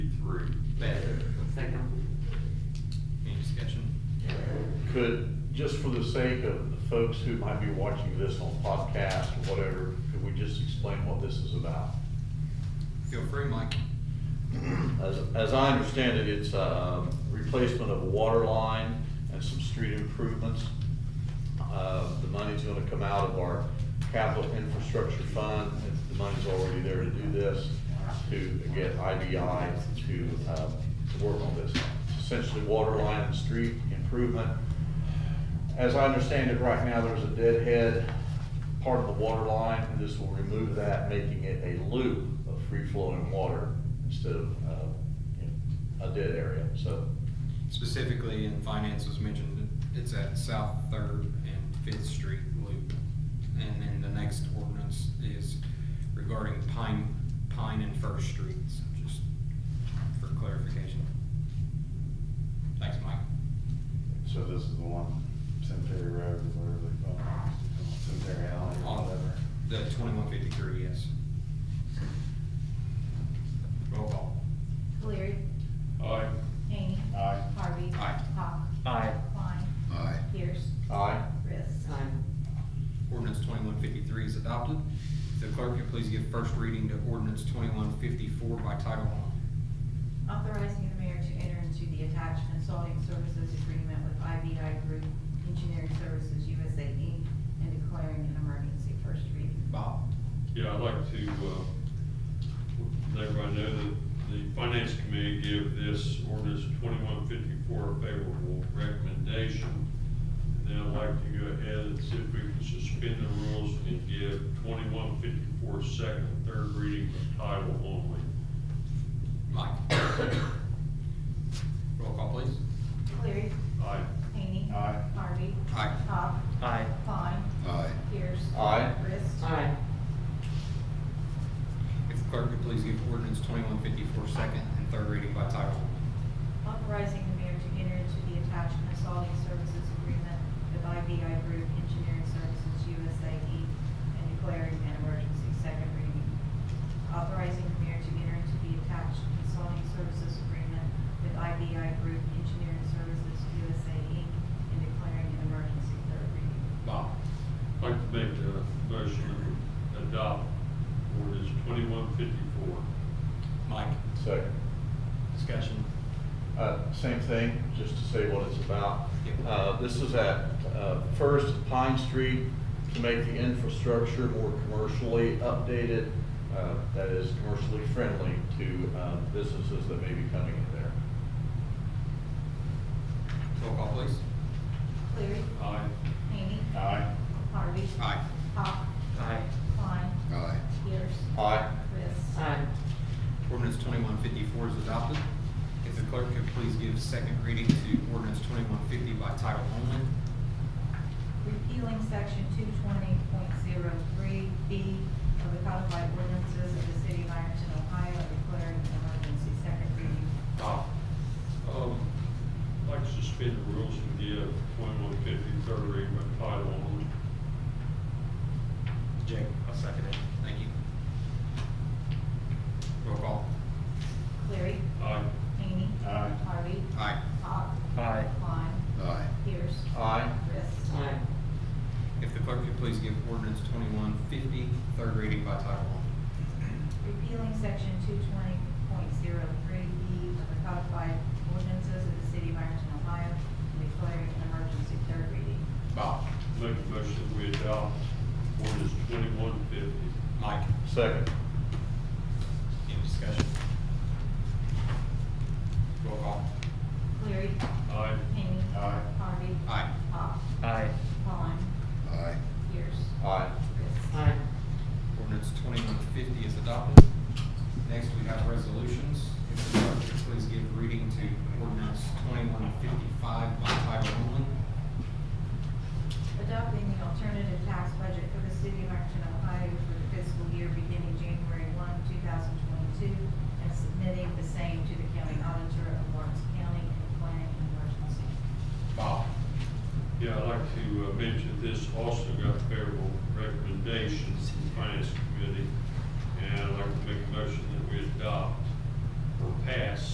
could, just for the sake of the folks who might be watching this on podcast or whatever, could we just explain what this is about? Feel free, Mike. As, as I understand it, it's, um, replacement of a water line and some street improvements. Uh, the money's gonna come out of our capital infrastructure fund, and the money's already there to do this, to get IDI to, uh, to work on this. Essentially water line and street improvement. As I understand it, right now, there's a deadhead part of the water line, and this will remove that, making it a loop of free-flowing water instead of, uh, you know, a dead area, so. Specifically in finance was mentioned, it's at South Third and Fifth Street Loop. And then the next ordinance is regarding Pine, Pine and First Streets, just for clarification. Thanks, Mike. So this is the one, Cemetery Road, or whatever they call it, Cemetery Alley, or Uh-huh. On whatever. the twenty-one fifty-three, yes. Roll call. Cleary. Aye. Hany. Aye. Harvey. Aye. Hawk. Aye. Klein. Aye. Pierce. Aye. Riss. Ordinance twenty-one fifty-three is adopted. If the clerk could please give first reading to ordinance twenty-one fifty-four by title only. Authorizing the mayor to enter into the attached consulting services agreement with IBI Group Engineering Services USA Inc. and declaring an emergency first reading. Bob? Yeah, I'd like to, uh, let everybody know that the finance committee gave this ordinance twenty-one fifty-four a favorable recommendation. And then I'd like to go ahead and see if we can suspend the rules and give twenty-one fifty-four second and third reading by title only. Mike? Roll call, please. Cleary. Aye. Hany. Aye. Harvey. Aye. Hawk. Aye. Klein. Aye. Pierce. Aye. Riss. Aye. If the clerk could please give ordinance twenty-one fifty-four second and third reading by title only. Authorizing the mayor to enter into the attached consulting services agreement with IBI Group Engineering Services USA Inc. and declaring an emergency second reading. Authorizing the mayor to enter into the attached consulting services agreement with IBI Group Engineering Services USA Inc. and declaring an emergency third reading. Bob? I'd like to make the motion to adopt ordinance twenty-one fifty-four. Mike? Second. Discussion. Uh, Same thing, just to say what it's about. Yep. Uh, This is at uh, First Pine Street to make the infrastructure more commercially updated, uh, that is commercially friendly to uh, businesses that may be coming in there. Roll call, please. Cleary. Aye. Hany. Aye. Harvey. Aye. Hawk. Aye. Klein. Aye. Pierce. Aye. Riss. Aye. Ordinance twenty-one fifty-four is adopted. If the clerk could please give second reading to ordinance twenty-one fifty by title only. repealing section two twenty point zero three B of the codified ordinances of the city of Ironton, Ohio, and declaring an emergency second reading. Bob? Um, I'd like to suspend the rules and give twenty-one fifty third reading by title only. Jake? I'll second it. Thank you. Roll call. Cleary. Aye. Hany. Aye. Harvey. Aye. Hawk. Aye. Klein. Aye. Pierce. Aye. Riss. Aye. If the clerk could please give ordinance twenty-one fifty third reading by title only. Repealing section two twenty point zero three B of the codified ordinances of the city of Ironton, Ohio, and declaring an emergency third reading. Bob? Make a motion that we adopt ordinance twenty-one fifty. Mike? Second. Any discussion? Roll call. Cleary. Aye. Hany. Aye. Harvey. Aye. Hawk. Aye. Klein. Aye. Pierce. Aye. Riss. Aye. Ordinance twenty-one fifty is adopted. Next, we have resolutions. If the clerk could please give reading to ordinance twenty-one fifty-five by title only. Adopting the alternative tax budget for the city of Ironton, Ohio for the fiscal year beginning January one, two thousand twenty-two, and submitting the same to the county auditor of Lawrence County and declaring an emergency. Bob? Yeah, I'd like to uh, mention this also got favorable recommendations from the finance committee. And I'd like to make a motion that we adopt or pass